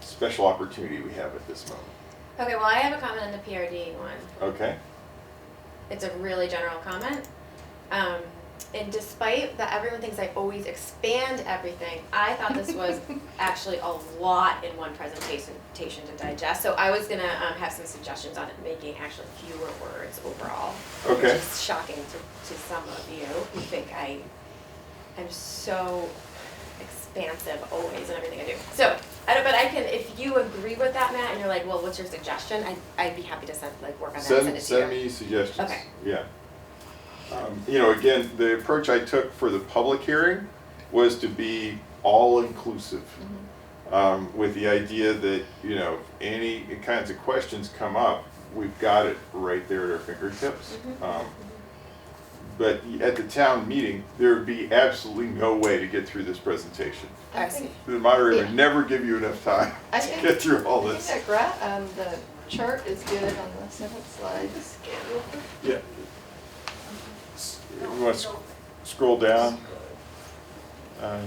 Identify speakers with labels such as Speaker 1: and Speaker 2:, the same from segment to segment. Speaker 1: special opportunity we have at this moment.
Speaker 2: Okay, well, I have a comment on the PRD one.
Speaker 1: Okay?
Speaker 2: It's a really general comment. Um, and despite that everyone thinks I always expand everything, I thought this was actually a lot in one presentation presentation to digest. So I was gonna um, have some suggestions on making actually fewer words overall.
Speaker 1: Okay.
Speaker 2: Which is shocking to, to some of you who think I am so expansive always in everything I do. So, I don't, but I can, if you agree with that, Matt, and you're like, well, what's your suggestion? I'd, I'd be happy to send, like, work on that and send it to you.
Speaker 1: Send, send me suggestions.
Speaker 2: Okay.
Speaker 1: Yeah. Um, You know, again, the approach I took for the public hearing was to be all-inclusive. um, With the idea that, you know, if any kinds of questions come up, we've got it right there at our fingertips. Um, But at the town meeting, there would be absolutely no way to get through this presentation.
Speaker 3: I see.
Speaker 1: The moderator
Speaker 3: Yeah.
Speaker 1: would never give you enough time
Speaker 3: I
Speaker 1: to
Speaker 3: think-
Speaker 1: get through all
Speaker 3: I
Speaker 1: Oh, this.
Speaker 3: think that gra- um, the chart is good on the seventh slide.
Speaker 1: Yeah. S- You want to scroll down? Uh,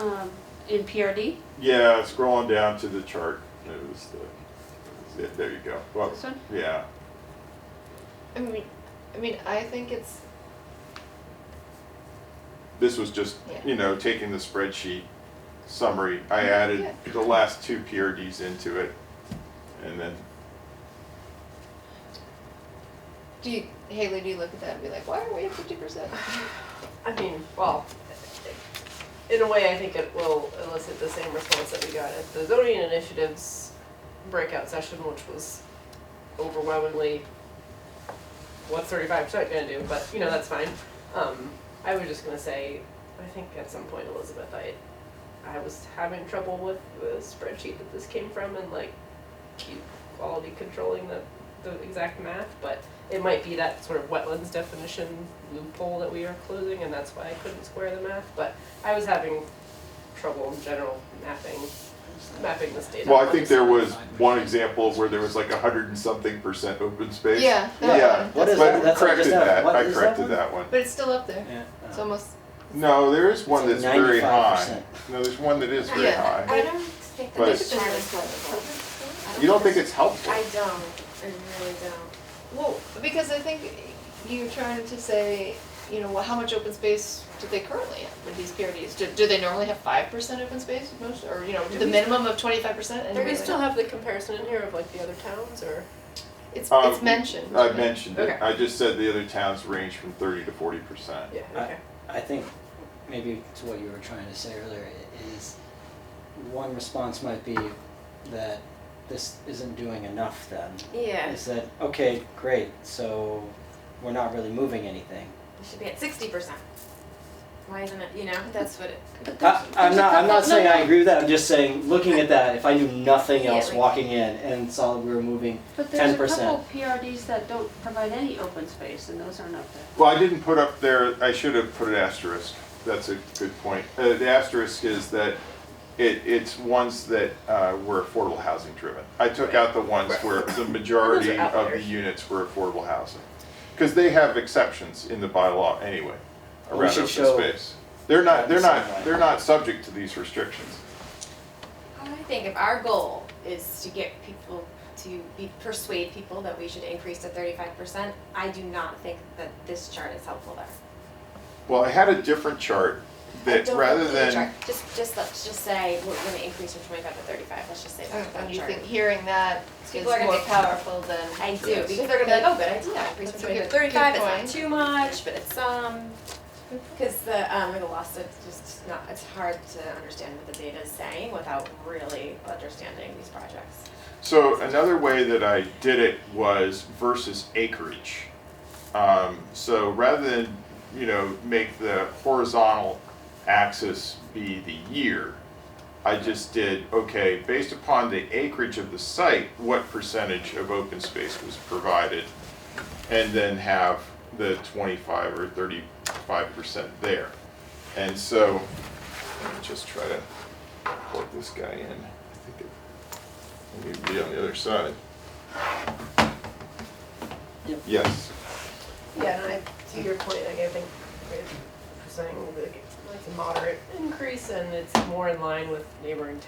Speaker 4: Um, in PRD,
Speaker 1: Yeah, scroll on down to the chart. It was the, yeah, there you go. Well,
Speaker 4: This one?
Speaker 1: Yeah,
Speaker 3: I mean, I mean, I think it's,
Speaker 1: this was just,
Speaker 3: Yeah.
Speaker 1: you know, taking the spreadsheet summary. I added the last two PRDs into it. And then,
Speaker 3: do you, Haley, do you look at that and be like, why are we at fifty percent?
Speaker 5: I mean, well, in a way, I think it will elicit the same response that we got at the zoning initiatives breakout session, which was overwhelmingly, what's thirty-five percent gonna do, but, you know, that's fine. Um, I was just gonna say, I think at some point, Elizabeth, I, I was having trouble with the spreadsheet that this came from and like keep quality controlling the, the exact math, but it might be that sort of wetlands definition loophole that we are closing, and that's why I couldn't square the math, but I was having trouble in general mapping, mapping this data.
Speaker 1: well, I think there was one example where there was like a hundred and something percent open space.
Speaker 3: Yeah, that
Speaker 1: Yeah,
Speaker 3: one.
Speaker 6: What is that?
Speaker 1: but
Speaker 6: That's what I
Speaker 1: corrected
Speaker 6: just have.
Speaker 1: that.
Speaker 6: What
Speaker 1: I
Speaker 6: is that
Speaker 1: corrected
Speaker 6: one?
Speaker 1: that one.
Speaker 3: But it's still up there.
Speaker 6: Yeah. Um,
Speaker 3: It's almost,
Speaker 1: No, there is one that's
Speaker 6: It's like
Speaker 1: very high.
Speaker 6: 95%.
Speaker 1: No, there's one that is very
Speaker 3: Yeah.
Speaker 1: high.
Speaker 2: I don't think
Speaker 1: But-
Speaker 2: that it's chart is helpful.
Speaker 1: You don't think it's helpful?
Speaker 2: I don't, I really don't.
Speaker 3: well, because I think you're trying to say, you know, well, how much open space do they currently have with these PRDs? Do, do they normally have five percent open space most, or, you know, the minimum of twenty-five percent?
Speaker 5: Do we still have the comparison in here of like the other towns, or?
Speaker 3: It's,
Speaker 1: Um,
Speaker 3: it's mentioned.
Speaker 1: I mentioned it.
Speaker 5: Okay.
Speaker 1: I just said the other towns range from thirty to forty percent.
Speaker 5: Yeah,
Speaker 6: I-
Speaker 5: okay.
Speaker 6: I think maybe to what you were trying to say earlier i- is one response might be that this isn't doing enough then.
Speaker 2: Yeah,
Speaker 6: Is that, okay, great, so we're not really moving anything.
Speaker 2: it should be at sixty percent. Why isn't it, you know?
Speaker 3: That's what it.
Speaker 6: I, I'm not, I'm not saying I agree with that, I'm just saying, looking at that, if I knew nothing
Speaker 2: Yeah,
Speaker 6: else
Speaker 2: like-
Speaker 6: walking in and saw we were moving,
Speaker 4: but there's a
Speaker 6: 10%.
Speaker 4: couple PRDs that don't provide any open space, and those aren't up there.
Speaker 1: Well, I didn't put up there, I should have put an asterisk. That's a good point. Uh, the asterisk is that it, it's ones that, uh, were affordable housing driven. I took out the ones where the majority of the
Speaker 5: outliers.
Speaker 1: units were affordable housing. Cause they have exceptions in the bylaw anyway,
Speaker 6: We
Speaker 1: around
Speaker 6: should
Speaker 1: open
Speaker 6: show-
Speaker 1: space. They're not, they're
Speaker 6: Right.
Speaker 1: not, they're not subject to these restrictions.
Speaker 2: I think if our goal is to get people to be, persuade people that we should increase to thirty-five percent, I do not think that this chart is helpful there.
Speaker 1: Well, I had a different chart
Speaker 2: I
Speaker 1: that
Speaker 2: don't
Speaker 1: rather
Speaker 2: think the
Speaker 1: than,
Speaker 2: chart- Just, just, let's just say we're gonna increase from twenty-five to thirty-five, let's just say that's that
Speaker 3: Oh, And you
Speaker 2: chart.
Speaker 3: think hearing that is
Speaker 2: People are
Speaker 3: more
Speaker 2: gonna be-
Speaker 3: powerful than.
Speaker 2: I do, because they're gonna be like, oh, good idea, increase from
Speaker 3: That's a
Speaker 2: twenty to
Speaker 3: good-
Speaker 2: thirty-five, it's
Speaker 3: good
Speaker 2: not
Speaker 3: point. Mm-hmm.
Speaker 2: too much, but it's some. Because the, um, the loss of, just not, it's hard to understand what the data is saying without really understanding these projects.
Speaker 1: so another way that I did it was versus acreage. Um, so rather than, you know, make the horizontal axis be the year, I just did, okay, based upon the acreage of the site, what percentage of open space was provided? And then have the twenty-five or thirty-five percent there. And so, let me just try to plug this guy in. I think it we need to be on the other side.
Speaker 6: Yep.
Speaker 1: Yes.
Speaker 5: Yeah, and I, to your point, like I think we're saying like it's a moderate increase and it's more in line with neighboring